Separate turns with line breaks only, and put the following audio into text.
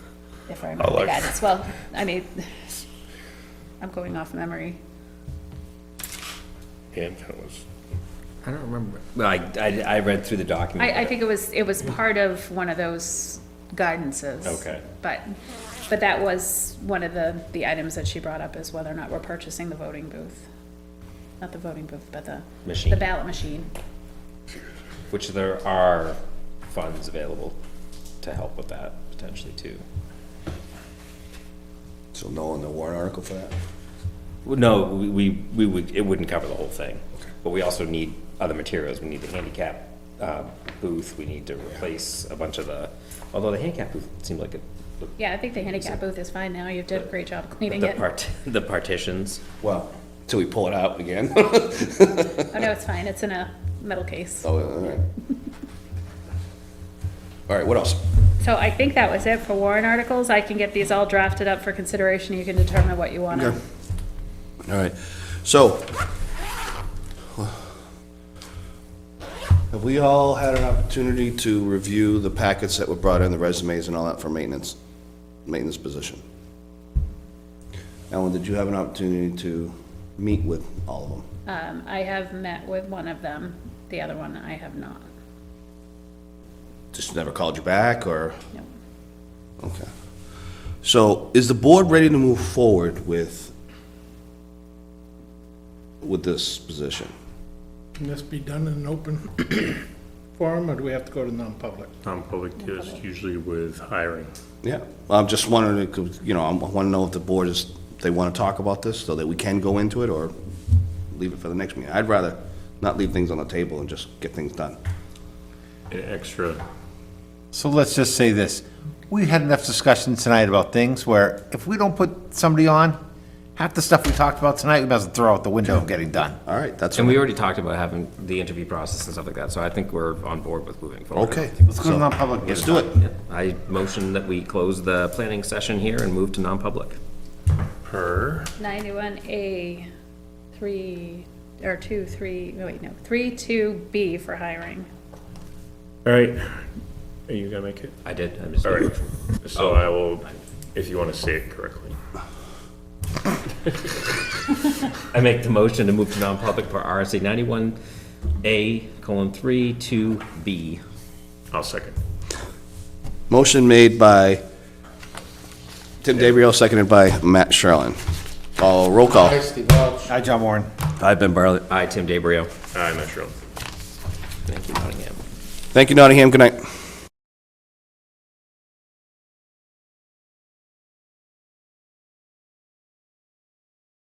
if I
I'll
remember
look.
that as well. I mean, I'm going off memory.
Hancock was,
I don't remember. Well, I, I, I read through the document.
I, I think it was, it was part of one of those guidances.
Okay.
But, but that was one of the, the items that she brought up is whether or not we're purchasing the voting booth. Not the voting booth, but the.
Machine.
The ballot machine.
Which there are funds available to help with that potentially too.
So no on the warrant article for that?
Well, No, we, we we would, it wouldn't cover the whole thing. But we also need other materials. We need the handicap uh, booth. We need to replace a bunch of the, although the handicap booth seemed like it. the-
Yeah, I think the handicap booth is fine now. You've done a great job cleaning
The
it.
part, the partitions.
Well, till we pull it out again.
Oh, no, it's fine. It's in a metal case.
Oh, all right. All right, what else?
So I think that was it for warrant articles. I can get these all drafted up for consideration. You can determine what you want to.
Okay. All right, so. Have we all had an opportunity to review the packets that were brought in, the resumes and all that for maintenance, maintenance position? Ellen, did you have an opportunity to meet with all of them?
Um, I have met with one of them. The other one I have not.
Just never called you back, or?
No.
Okay. So is the board ready to move forward with, with this position?
Can this be done in an open forum, or do we have to go to non-public?
non-public Um, is usually with hiring.
Yeah, I'm just wondering, it could- you know, I want to know if the board is, they want to talk about this so that we can go into it or leave it for the next meeting. I'd rather not leave things on the table and just get things done.
An extra,
So let's just say this, we had enough discussion tonight about things where if we don't put somebody on, half the stuff we talked about tonight, we might as well throw out the window of getting done.
All right, that's.
And we already talked about having the interview process and stuff like that. So I think we're on board with moving forward.
Okay.
Let's go to non-public.
Let's do it.
I motion that we close the planning session here and move to non-public.
per,
Ninety-one A, three, or two, three, no, wait, no, three, two, B for hiring.
all right, are you gonna make it?
I did, I just.
All right, so I will, if you wanna say it correctly.
I make the motion to move to non-public for RSA ninety-one A colon three two B.
I'll second.
Motion made by Tim DeBrio, seconded by Matt Sherlin. Oh, roll call.
Hi, John Warren.
I've been Bartlett.
Aye, Tim DeBrio.
I'm not sure.
Thank you, Nottingham.
Thank you, Nottingham. Good night.